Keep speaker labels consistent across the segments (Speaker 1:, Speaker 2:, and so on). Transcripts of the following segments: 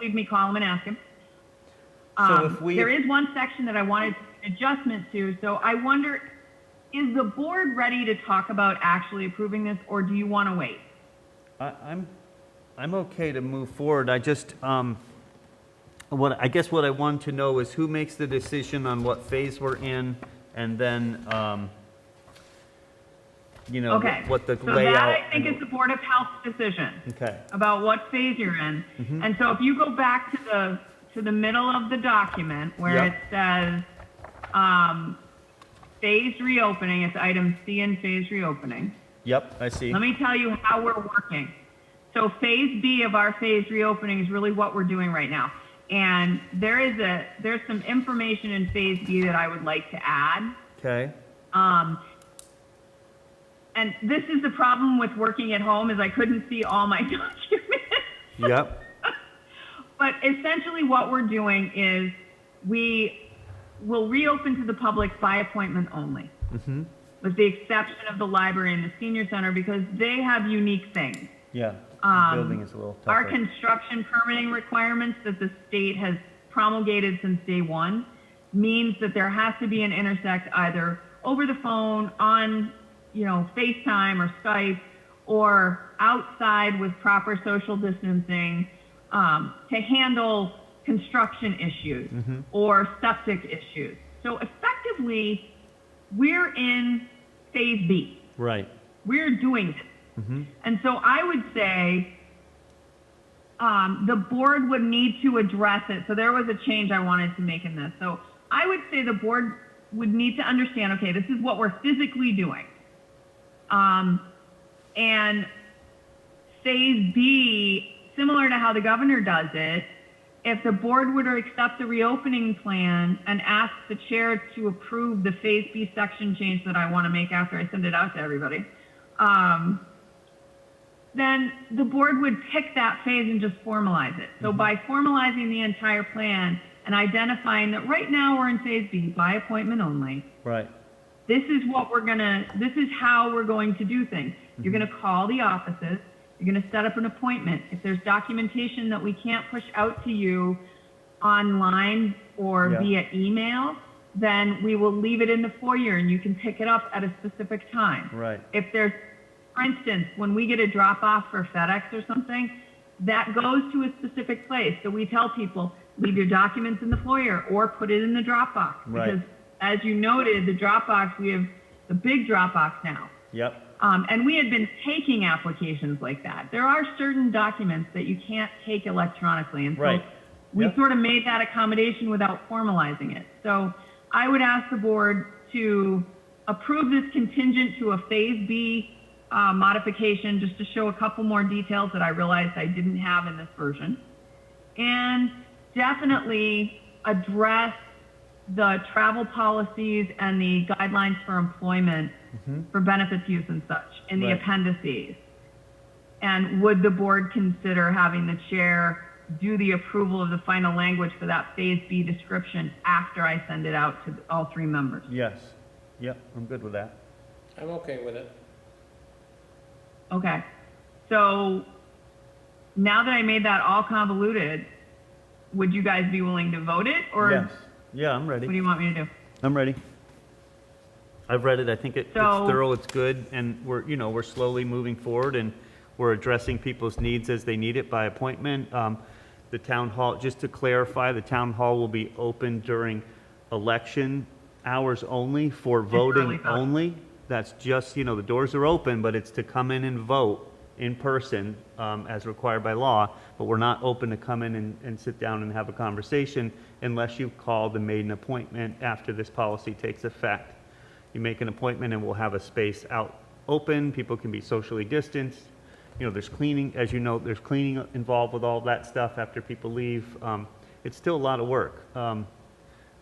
Speaker 1: leave me, call him and ask him.
Speaker 2: So
Speaker 1: Um,
Speaker 2: if we-
Speaker 1: There is one section that I wanted adjustment to, so I wonder, is the board ready to talk about actually approving this, or do you want to wait?
Speaker 2: I- I'm, I'm okay to move forward. I just, um, what, I guess what I want to know is who makes the decision on what phase we're in, and then, um, you know,
Speaker 1: Okay.
Speaker 2: what the
Speaker 1: So that,
Speaker 2: layout.
Speaker 1: I think, is the Board of Health decision.
Speaker 2: Okay. Mm-hmm.
Speaker 1: About what phase you're in. And so if you go back to the, to the middle of the document where
Speaker 2: Yep.
Speaker 1: it says, um, phase reopening, it's item C in phase reopening.
Speaker 2: Yep, I see.
Speaker 1: Let me tell you how we're working. So phase B of our phase reopening is really what we're doing right now. And there is a, there's some information in phase B that I would like to add.
Speaker 2: Okay,
Speaker 1: Um, and this is the problem with working at home is I couldn't see all my documents.
Speaker 2: yep,
Speaker 1: But essentially what we're doing is we will reopen to the public by appointment only. With the exception of the library and the senior center because they have unique things.
Speaker 2: yeah.
Speaker 1: Um,
Speaker 2: Building is a little
Speaker 1: Our
Speaker 2: tougher.
Speaker 1: construction permitting requirements that the state has promulgated since day one means that there has to be an intersect either over the phone, on, you know, FaceTime or Skype, or outside with proper social distancing um, to handle construction issues or septic issues. So effectively, we're in phase B.
Speaker 2: Right,
Speaker 1: We're doing it. And so I would say um, the board would need to address it. So there was a change I wanted to make in this. So I would say the board would need to understand, okay, this is what we're physically doing. Um, and phase B, similar to how the governor does it, if the board were to accept the reopening plan and ask the chair to approve the phase B section change that I want to make after I send it out to everybody, um, then the board would pick that phase and just formalize it. So by formalizing the entire plan and identifying that right now we're in phase B by appointment only,
Speaker 2: right,
Speaker 1: this is what we're gonna, this is how we're going to do things. You're
Speaker 2: Mm-hmm.
Speaker 1: gonna call the offices, you're gonna set up an appointment. If there's documentation that we can't push out to you online or
Speaker 2: Yeah.
Speaker 1: via email, then we will leave it in the foyer and you can pick it up at a specific time
Speaker 2: right,
Speaker 1: if there's, for instance, when we get a drop off for FedEx or something, that goes to a specific place. So we tell people, leave your documents in the foyer or put it in the drop box.
Speaker 2: Right.
Speaker 1: Because as you noted, the drop box, we have the big drop box now.
Speaker 2: yep,
Speaker 1: Um, and we had been taking applications like that. There are certain documents that you can't take electronically. And so
Speaker 2: Right.
Speaker 1: we
Speaker 2: Yep.
Speaker 1: sort of made that accommodation without formalizing it. So I would ask the board to approve this contingent to a phase B uh, modification just to show a couple more details that I realized I didn't have in this version. And definitely address the travel policies and the guidelines for employment for benefits use and such in the
Speaker 2: Mm-hmm. Right.
Speaker 1: appendices. And would the board consider having the chair do the approval of the final language for that phase B description after I send it out to all three members?
Speaker 2: yes, yep, I'm good with that.
Speaker 3: I'm okay with it.
Speaker 1: Okay. So now that I made that all convoluted, would you guys be willing to vote it or
Speaker 2: Yes, yeah, I'm
Speaker 1: what do
Speaker 2: ready,
Speaker 1: you want me to do?
Speaker 2: I'm ready. I've read it, I think it- it's
Speaker 1: So-
Speaker 2: thorough, it's good, and we're, you know, we're slowly moving forward, and we're addressing people's needs as they need it by appointment. Um, The town hall, just to clarify, the town hall will be open during election hours only for voting
Speaker 1: voting.
Speaker 2: only. That's just, you know, the doors are open, but it's to come in and vote in person um, as required by law. But we're not open to come in and, and sit down and have a conversation unless you called and made an appointment after this policy takes effect. You make an appointment and we'll have a space out open. People can be socially distanced. You know, there's cleaning, as you know, there's cleaning involved with all that stuff after people leave. Um, It's still a lot of work. um,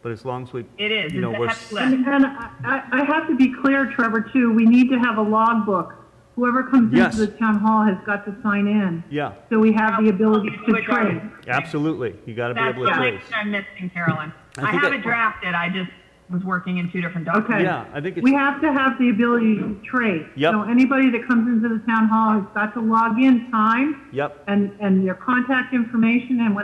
Speaker 2: But as long as we.
Speaker 1: It is.
Speaker 2: You know,
Speaker 1: It's a
Speaker 2: we're.
Speaker 1: heavy
Speaker 2: s-
Speaker 1: lift.
Speaker 4: And, and I, I- I have to be clear, Trevor, too, we need to have a logbook. Whoever comes
Speaker 2: Yes.
Speaker 4: into the town hall has got to sign in.
Speaker 2: Yeah.
Speaker 4: So we have the ability to
Speaker 1: Which I-
Speaker 4: trace.
Speaker 2: Absolutely. You got to be
Speaker 1: That's
Speaker 2: able to
Speaker 1: what
Speaker 2: trace.
Speaker 1: I'm missing, Carolyn.
Speaker 2: I
Speaker 1: I
Speaker 2: think
Speaker 1: have
Speaker 2: I-
Speaker 1: it drafted, I just was working in two different documents.
Speaker 4: Okay.
Speaker 2: Yeah, I think
Speaker 4: We
Speaker 2: it's,
Speaker 4: have to have the ability to trace.
Speaker 2: Yep.
Speaker 4: So anybody that comes into the town hall has got to log in time
Speaker 2: yep.
Speaker 4: and, and your contact information and what